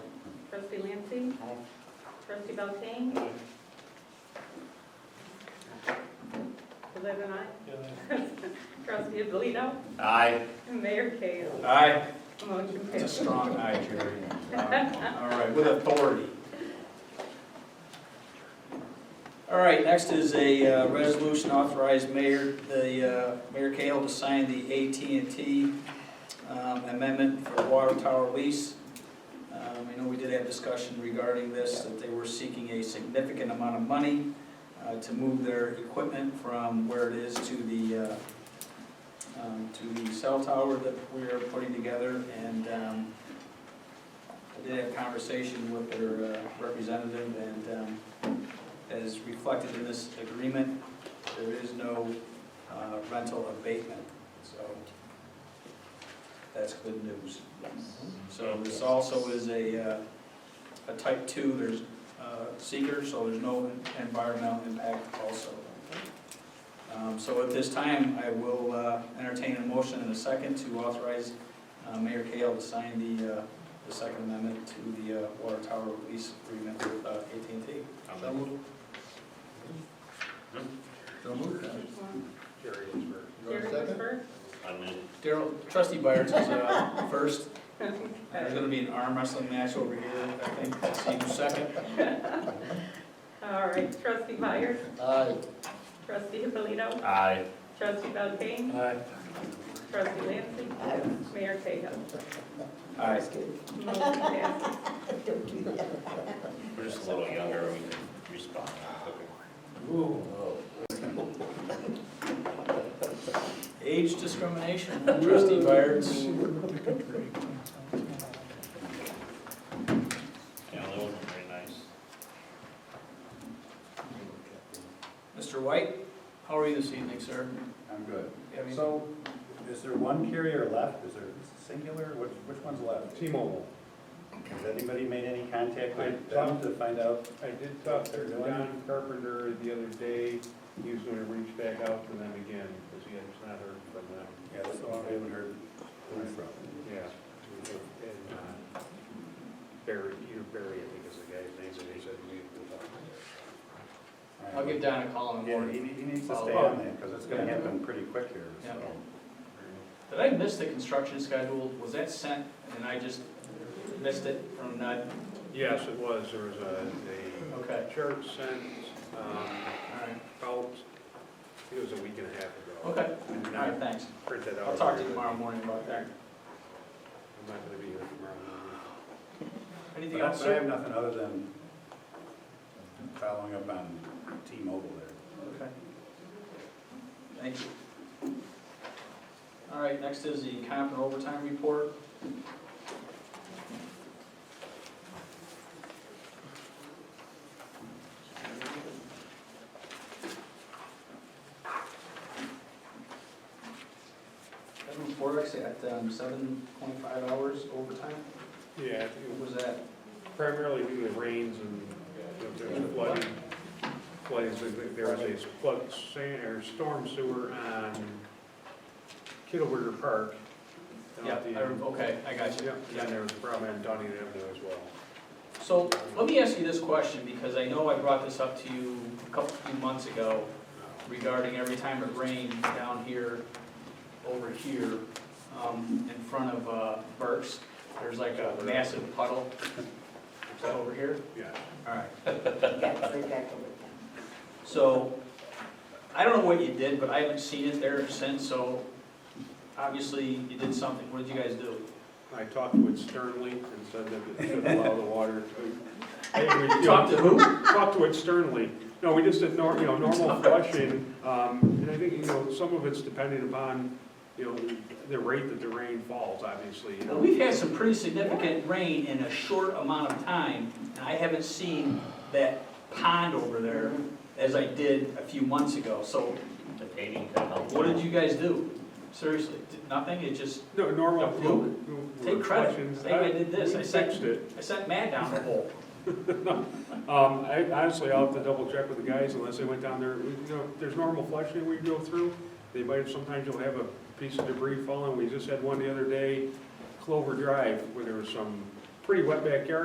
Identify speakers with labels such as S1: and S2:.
S1: Trustee Lancey.
S2: Aye.
S1: Trustee Belkane. Eleven aye. Trustee Abolito.
S3: Aye.
S1: Mayor Cahill.
S3: Aye.
S1: Motion
S3: It's a
S1: passed.
S3: strong aye, Jerry. All right, with authority.
S4: All right, next is a uh, resolution authorized mayor, the, uh, Mayor Cahill to sign the AT&T um, amendment for the water tower lease. Um, I know we did have discussion regarding this, that they were seeking a significant amount of money uh, to move their equipment from where it is to the, uh, um, to the cell tower that we are putting together. And um, I did have conversation with their uh, representative and um, as reflected in this agreement, there is no uh, rental abatement, so that's good news. So this also is a, uh, a type two, there's uh, seeker, so there's no environmental impact also. Um, So at this time, I will uh, entertain a motion and a second to authorize uh, Mayor Kale to sign the, uh, the second amendment to the uh, water tower lease agreement with uh, AT&T.
S3: So moved.
S2: So moved.
S3: Jerry is first.
S2: You want a second?
S3: I'm in.
S4: Daryl, trustee Byers is uh, first. There's
S1: Okay.
S4: gonna be an arm wrestling match over here, I think. Let's See who's second.
S1: All right, trustee Byers,
S2: Aye.
S1: trustee Abolito,
S3: Aye.
S1: trustee Belkane,
S3: Aye.
S1: trustee Lancey, Mayor Cahill.
S4: All right.
S1: Motion passed.
S3: We're just a little younger, we can respond quicker.
S4: Age discrimination, trustee Byers.
S3: Yeah, that wasn't very nice.
S4: Mr. White, how are you this evening, sir?
S5: I'm good.
S4: You have any-
S5: So, is there one carrier left? Is there singular? Which, which one's left?
S6: T-Mobile.
S5: Has anybody made any contact
S6: I
S5: with them
S6: talked-
S5: to find out?
S6: I did talk to John Carpenter the other day, he was gonna reach back out to them again, because he has not heard from them.
S5: Yeah, that's all I haven't heard. from.
S6: Yeah. And, uh, Barry, Peter Barry, I think is the guy's name, and he said we will talk to
S4: I'll give Don a call in the
S5: Yeah, he,
S4: morning.
S5: he needs to
S4: Follow
S5: stay
S4: up.
S5: on that, because it's gonna happen pretty quick here,
S4: Yeah.
S5: so.
S4: Did I miss the construction schedule? Was that sent and I just missed it from not,
S6: them. Yes, it was, there was a,
S4: okay,
S6: a church sent, um,
S4: all right,
S6: out, I think it was a week and a half ago.
S4: okay,
S6: I did
S4: all
S6: not
S4: right, thanks.
S6: print that out.
S4: I'll talk to you tomorrow morning about that.
S6: I'm not gonna be here tomorrow morning.
S4: Anything
S5: But I-
S4: else,
S5: but I have
S4: sir?
S5: nothing other than following up on T-Mobile there.
S4: Okay. Thank you. All right, next is the comp and overtime report. Kevin Forex at um, seven point five hours overtime,
S6: Yeah, I think it
S4: what was that?
S6: primarily due to the rains and you know, there was flooding. Flooding, so there was a flood, sand, or storm sewer on Kittleberger Park. down
S4: Yeah,
S6: at the-
S4: I rem- okay, I got you.
S6: Yep, and then there was a problem on Dunning Avenue as well.
S4: So let me ask you this question, because I know I brought this up to you a couple, few months ago regarding every time it rained down here, over here, um, in front of, uh, Burke's, there's like a massive puddle. Is that over here?
S6: Yeah,
S4: Alright.
S2: Yes,
S4: So, I don't know what you did, but I haven't seen it there since, so obviously you did something. What did you guys do?
S6: I talked with Sternly and said that it should allow the water to. Hey, we-
S4: You talked to who?
S6: talk to it sternly. No, we just did, nor- you know, normal flushing, um, and I think, you know, some of it's dependent upon, you know, the rate that the rain falls, obviously, you
S4: Well,
S6: know.
S4: We've had some pretty significant rain in a short amount of time, and I haven't seen that pond over there as I did a few months ago. So
S3: The paving could help.
S4: what did you guys do? Seriously, did nothing? It just,
S6: No, normal.
S4: Yeah, you- take credit. Say I did this, I said-
S6: fixed it.
S4: I sent Matt down the hole.
S6: Um, I, honestly, I'll have to double check with the guys unless they went down there, you know, there's normal flushing we go through. They might, sometimes you'll have a piece of debris falling. We just had one the other day, Clover Drive, where there was some pretty wet backyard